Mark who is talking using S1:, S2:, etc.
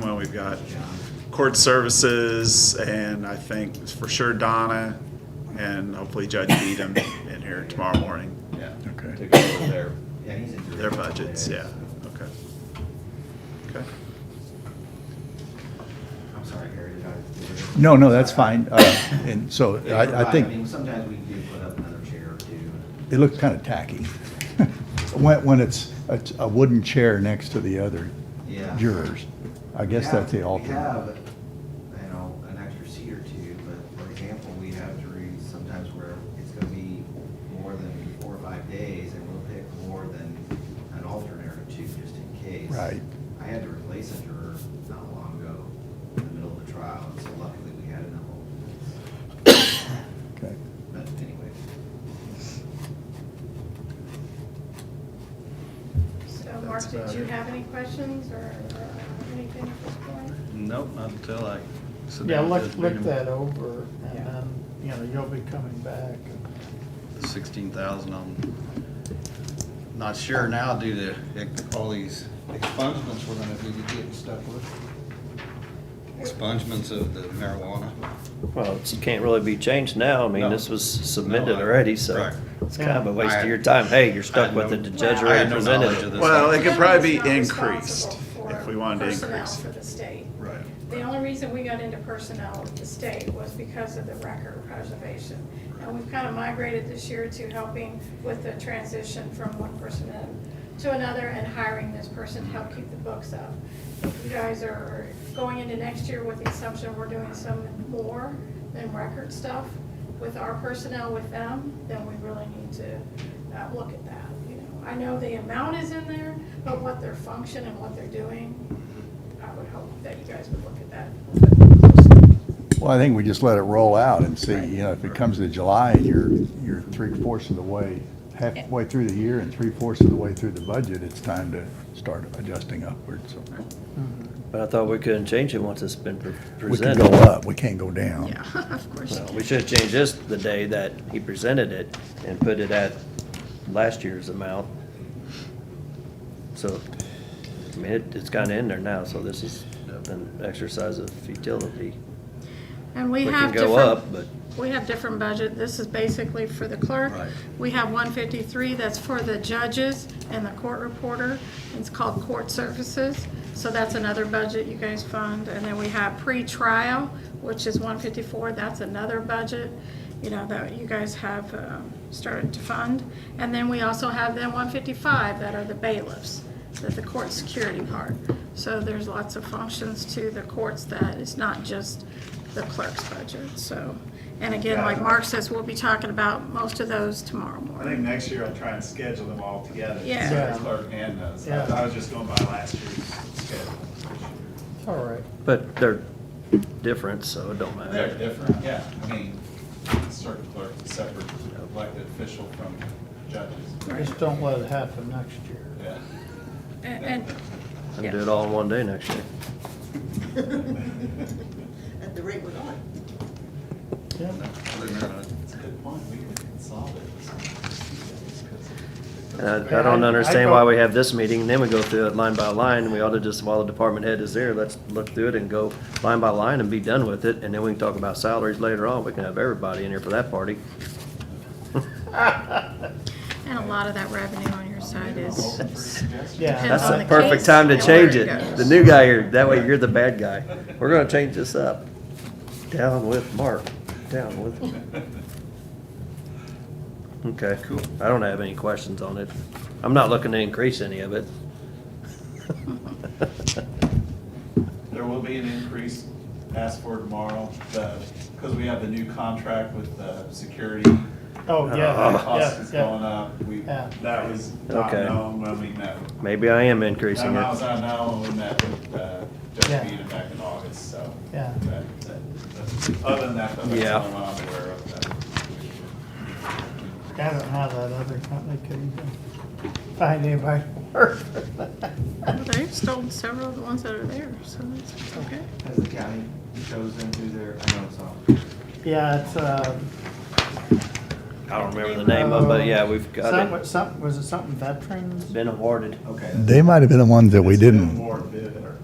S1: Well, we've got court services and I think for sure Donna and hopefully Judge Beadham in here tomorrow morning.
S2: Yeah.
S3: Okay.
S2: To go with their, yeah, he's in.
S1: Their budgets, yeah, okay. Okay,
S2: I'm sorry, Harry, did I?
S3: No, no, that's fine. Uh, And so
S2: They
S3: I, I
S2: provide- mean,
S3: think
S2: sometimes we do put up another chair or two.
S3: it looks kind of tacky when, when it's a, a wooden chair next to the other
S2: Yeah.
S3: jurors. I guess that's the
S2: We have,
S3: alternate.
S2: we have, you know, an extra seat or two, but for example, we have juries sometimes where it's gonna be more than four or five days, and we'll pick more than an alternate or two just in case.
S3: Right.
S2: I had to replace a juror not long ago in the middle of the trial, and so luckily we had enough alternates.
S3: Okay.
S2: But anyway,
S4: So Mark, did you have any questions or or anything at this point?
S5: Nope, not until I sit
S6: Yeah,
S5: down with
S6: look,
S5: Judge
S6: look
S5: Bingham.
S6: that over, and
S4: Yeah.
S6: then, you know, you'll be coming back.
S5: The sixteen thousand, I'm not sure now due to ex- all these expungements we're gonna be getting stuck with. Expungements of the marijuana.
S7: Well, it can't really be changed now. I
S5: No.
S7: mean, this was
S5: No,
S7: submitted
S5: I-
S7: already, so
S5: right.
S7: it's kind of a waste
S5: I-
S7: of your time. Hey, you're
S5: I
S7: stuck
S5: had
S7: with
S5: no-
S7: it. The judge
S4: Wow. I
S7: already
S4: had
S5: no knowledge of
S7: presented
S5: this.
S7: it.
S1: Well, it could probably be
S4: Nobody's not
S1: increased
S4: responsible
S1: if
S4: for
S1: we wanted to
S4: personnel
S1: increase
S4: For
S1: it.
S4: the state.
S5: Right.
S4: The only reason we got into personnel with the state was because of the record preservation. And we've kind of migrated this year to helping with the transition from one person in to another and hiring this person to help keep the books up. If you guys are going into next year with the assumption we're doing some more than record stuff with our personnel with them, then we really need to uh, look at that, you know. I know the amount is in there, but what their function and what they're doing, I would hope that you guys would look at that. a little bit closer.
S3: Well, I think we just let it roll out and see, you know, if it comes to July and you're, you're three fourths of the way, halfway through the year and three fourths of the way through the budget, it's time to start adjusting upward, so.
S7: But I thought we couldn't change it once it's been pre-
S3: We can
S7: presented.
S3: go up, we can't go down.
S4: of course.
S7: Well, We should have changed this the day that he presented it and put it at last year's amount. So, I mean, it- it's kind of in there now, so this is an exercise of futility.
S4: And we
S7: We
S4: have
S7: can go up,
S4: different,
S7: but
S4: we have different budget. This is basically for the clerk.
S5: Right.
S4: We have one fifty-three that's for the judges and the court reporter. It's called court services. So that's another budget you guys fund. And then we have pre-trial, which is one fifty-four. That's another budget, you know, that you guys have um, started to fund. And then we also have then one fifty-five that are the bailiffs, that the court security part. So there's lots of functions to the courts that it's not just the clerk's budget, so. And again, like Mark says, we'll be talking about most of those tomorrow
S8: I think
S4: morning.
S8: next year I'll try and schedule them all together.
S4: Yeah.
S8: So the Clerk and those. I
S6: Yeah.
S8: I was just going by last year's schedule.
S6: It's all right.
S7: But they're different, so it don't
S8: They're
S7: matter.
S8: different, yeah. I mean, circuit clerk, is separate elected official from judges.
S6: Just don't let it happen next year.
S8: Yeah.
S4: And, and
S7: And do it all in one day next year.
S9: At the rate we're going.
S6: Yeah.
S5: Other than that,
S8: That's a good point. We can consolidate this. one. Because
S7: And I, I don't
S6: I- I
S7: understand why
S6: vote-
S7: we have this meeting, and then we go through it line by line, and we ought to just, while the department head is there, let's look through it and go line by line and be done with it, and then we can talk about salaries later on, we can have everybody in here for that party.
S4: and a lot of that revenue on your side is,
S8: Open for suggestions.
S6: Yeah.
S7: That's
S4: on
S7: the
S4: the
S7: perfect
S4: case
S7: time to
S4: and where
S7: change
S4: it
S7: it.
S4: goes.
S7: The new guy here, that way you're the bad guy. We're gonna change this up. Down with Mark, down with. Okay. Cool. I don't have any questions on it. I'm not looking to increase any of it.
S8: There will be an increase asked for tomorrow, because we have the new contract with the security.
S6: Oh, yeah,
S8: That cost
S6: yeah,
S8: is going
S6: yeah.
S8: up. We,
S6: Yeah.
S8: that was not
S7: Okay.
S8: known when we met.
S7: Maybe I am
S8: That
S7: increasing
S8: was
S7: it.
S8: not known when we met with uh, Judge
S6: Yeah.
S8: Beadham back in August, so.
S6: Yeah.
S8: that- that- that's- Other than that, though, that's
S7: Yeah.
S8: the only one I'm aware of. that-
S6: I don't know how that other company could even find anybody to work for that.
S4: they've stolen several of the ones that are there, so that's okay.
S2: has the county chosen who their, I know it's on.
S6: Yeah, it's, uh.
S7: I don't remember the name of it, but yeah, we've got
S6: something-
S7: it.
S6: Something, was it something veterans?
S7: Been awarded.
S2: Okay.
S3: They might have been the ones that we
S8: It's been
S3: didn't,
S8: More bid or